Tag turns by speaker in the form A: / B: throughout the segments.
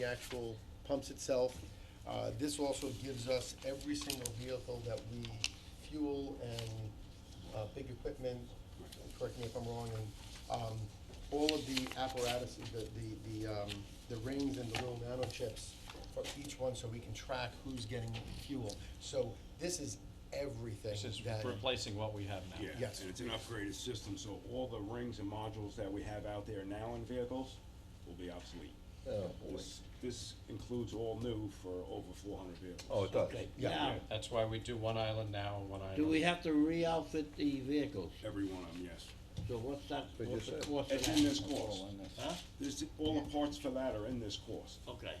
A: the actual pumps itself. Uh, This also gives us every single vehicle that we fuel and uh, big equipment, correct me if I'm wrong, and um, all of the apparatuses, the, the, the um, the rings and the little nano chips for each one, so we can track who's getting fuel. So this is everything
B: This is
A: that.
B: replacing what we have now.
C: Yeah,
A: Yes.
C: and it's an upgraded system, so all the rings and modules that we have out there now in vehicles will be obsolete.
D: Oh,
C: This, this includes all new for over four hundred vehicles.
D: Oh, it does.
E: Okay,
A: Yeah.
E: now,
B: That's why we do one island now and one island.
E: do we have to re-outfit the vehicles?
C: Every one of them, yes.
E: So what's that,
D: But you
E: what's the
D: said-
E: cost of
C: It's in
E: that?
C: this cost.
E: Huh?
C: This, all the parts for that are in this cost.
E: Okay,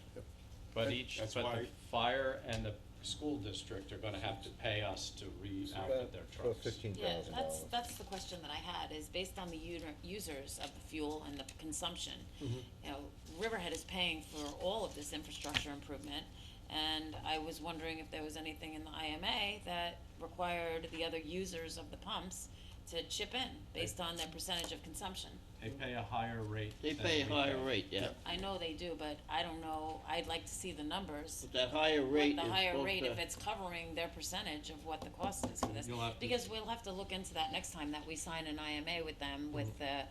B: But each,
C: That's
B: but the
C: why-
B: fire and the school district are gonna have to pay us to re-outfit their
D: About
B: trucks.
D: fifteen
F: Yeah,
D: thousand
F: that's,
D: dollars.
F: that's the question that I had, is based on the uter- users of the fuel and the consumption.
D: Mm-hmm.
F: You know, Riverhead is paying for all of this infrastructure improvement, and I was wondering if there was anything in the IMA that required the other users of the pumps to chip in, based on their percentage of consumption.
B: They pay a higher rate
E: they
B: than
E: pay a
B: we
E: higher rate, yeah,
F: I know they do, but I don't know, I'd like to see the numbers.
E: but that higher
F: What
E: rate
F: the
E: is
F: higher
E: supposed
F: rate, if
E: to-
F: it's covering their percentage of what the cost is for this.
B: You'll have to-
F: Because we'll have to look into that next time, that we sign an IMA with them, with the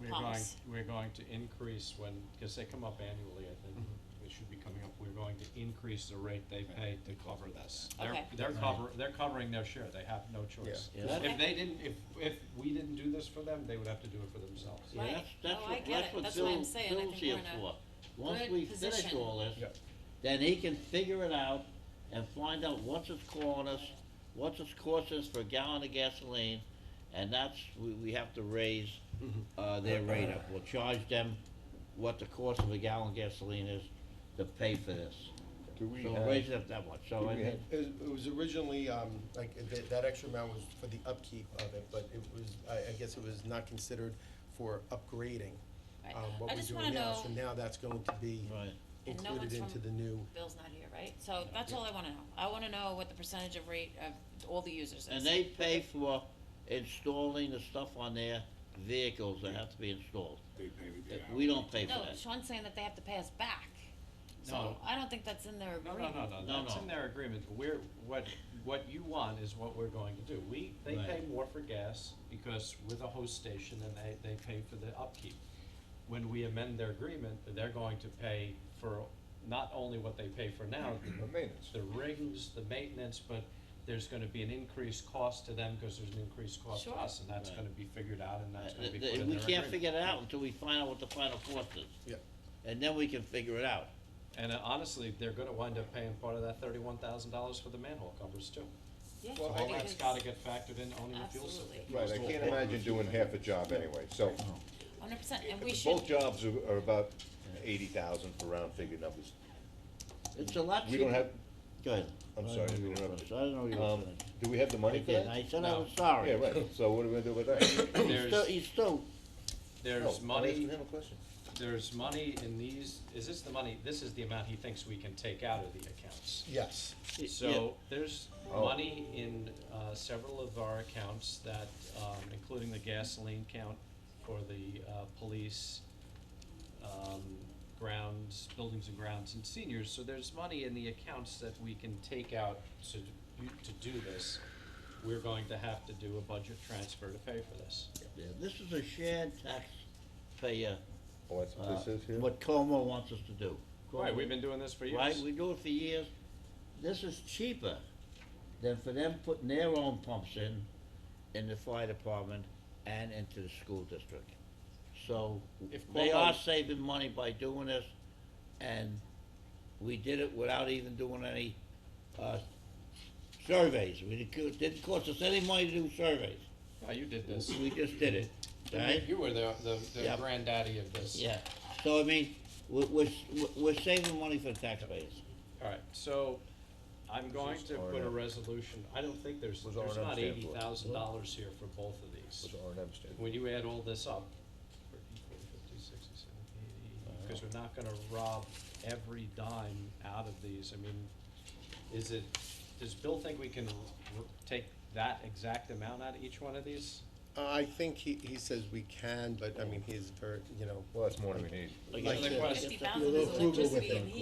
B: We're going,
F: pumps.
B: we're going to increase when, because they come up annually, I think, they should be coming up, we're going to increase the rate they pay to cover this.
F: Okay.
B: They're, they're cover, they're covering their share, they have no choice.
E: Yeah. Yeah.
B: If they didn't, if, if we didn't do this for them, they would have to do it for themselves.
E: Yeah,
F: Right.
E: that's, that's
F: No, I
E: what,
F: get
E: that's
F: it.
E: what
F: That's why I'm
E: Bill's,
F: saying I
E: Bill's
F: think we're
E: here
F: in a
E: for. Once
F: good
E: we finish
F: position.
E: all this,
A: Yep.
E: then he can figure it out and find out what's it's calling us, what's it's cost us for a gallon of gasoline, and that's, we, we have to raise,
D: Mm-hmm.
E: uh, their rate up. We'll charge them what the cost of a gallon of gasoline is to pay for this.
D: Do we
E: So
D: have-
E: raise it up that much, so
D: do
E: I
D: we
E: mean,
D: have-
A: It was, it was originally, um, like, that, that extra amount was for the upkeep of it, but it was, I, I guess it was not considered for upgrading.
F: Right.
A: um,
F: I
A: what we're
F: just wanna
A: doing now, so
F: know-
A: now that's going to be
E: right,
F: And no
A: included
F: one's
A: into
F: from-
A: the new.
F: Bill's not here, right? So that's all I wanna know. I wanna know what the percentage of rate of all the users is.
E: and they pay for installing the stuff on their vehicles that have to be installed.
C: They pay with the hour.
E: We don't pay for
F: No,
E: that.
F: Sean's saying that they have to pay us back. So
B: No.
F: I don't think that's in their
B: No, no,
F: agreement.
B: no, no,
E: No,
B: that's
E: no.
B: in their agreement, we're, what, what you want is what we're going to do, we, they
E: Right.
B: pay more for gas, because we're the host station and they, they pay for the upkeep. When we amend their agreement, they're going to pay for not only what they pay for now,
D: The maintenance.
B: the rings, the maintenance, but there's gonna be an increased cost to them, cause there's an increased cost to
F: Sure.
B: us, and that's
E: Right.
B: gonna be figured out, and that's gonna
E: Uh,
B: be put in
E: th-
B: their
E: We can't
B: agreement.
E: figure it out until we find out what the final cost is.
A: Yeah.
E: And then we can figure it out.
B: And uh, honestly, they're gonna wind up paying part of that thirty-one thousand dollars for the manhole covers too.
F: Yeah,
A: Well,
B: All
A: I-
B: that's
F: because-
B: gotta get factored in owning the fuel system.
F: Absolutely.
D: Right, I can't imagine doing half a job anyway, so.
F: Hundred percent, and we
D: Both
F: should,
D: jobs are, are about eighty thousand for round figure numbers.
E: It's a lot cheaper.
D: We don't have,
E: Go ahead.
D: I'm
E: I
D: sorry,
E: didn't know
D: we
E: you were
D: interrupted.
E: finished. I didn't know you were
D: um,
E: finished.
D: do we have the
E: I
D: money for
E: didn't,
D: that?
E: I said I
B: No.
E: was sorry.
D: Yeah, right, so what are we gonna do with that?
E: He's still,
B: There's,
E: he's still,
D: No,
B: there's
D: I'm
B: money,
D: asking him a question.
B: there's money in these, is this the money, this is the amount he thinks we can take out of the accounts.
A: Yes.
E: yeah.
B: So, there's
D: Oh.
B: money in, uh, several of our accounts that, um, including the gasoline count for the, uh, police, um, grounds, buildings and grounds and seniors, so there's money in the accounts that we can take out to, to do this. We're going to have to do a budget transfer to pay for this.
E: yeah, this is a shared taxpayer,
D: Oh, that's
E: uh,
D: what this is here?
E: what Como wants us to do.
B: Right,
E: Como-
B: we've been doing this for years.
E: Right, we do it for years. This is cheaper than for them putting their own pumps in, in the fire department and into the school district. So,
B: If
E: they are
B: Cuomo-
E: saving money by doing this, and we did it without even doing any, uh, surveys. We didn't, co- didn't cost us any money to do surveys.
B: Now, you did this.
E: We just did it, right?
B: You were the, the, the
E: Yeah.
B: granddaddy of this.
E: Yeah, so I mean, we're, we're, we're saving money for the taxpayers.
B: All right, so I'm going
D: this
B: to
D: R and
B: put a
D: M?
B: resolution, I don't think there's,
D: What's
B: there's
D: R and M
B: not
D: stand
B: eighty
D: for?
B: thousand dollars here for both of these.
D: What's R and M stand?
B: When you add all this up, 30, 40, 50, 60, 70, 80, because we're not gonna rob every dime out of these, I mean, is it, does Bill think we can r- r- take that exact amount out of each one of these?
A: Uh, I think he, he says we can, but I mean, he's very, you know,
D: Well, that's more than we need.
E: Like,
A: Like
E: if-
A: the-
E: if-
F: Fifty
E: if-
F: thousand is
G: You'll approve it with
F: electricity
G: them.
F: and heat.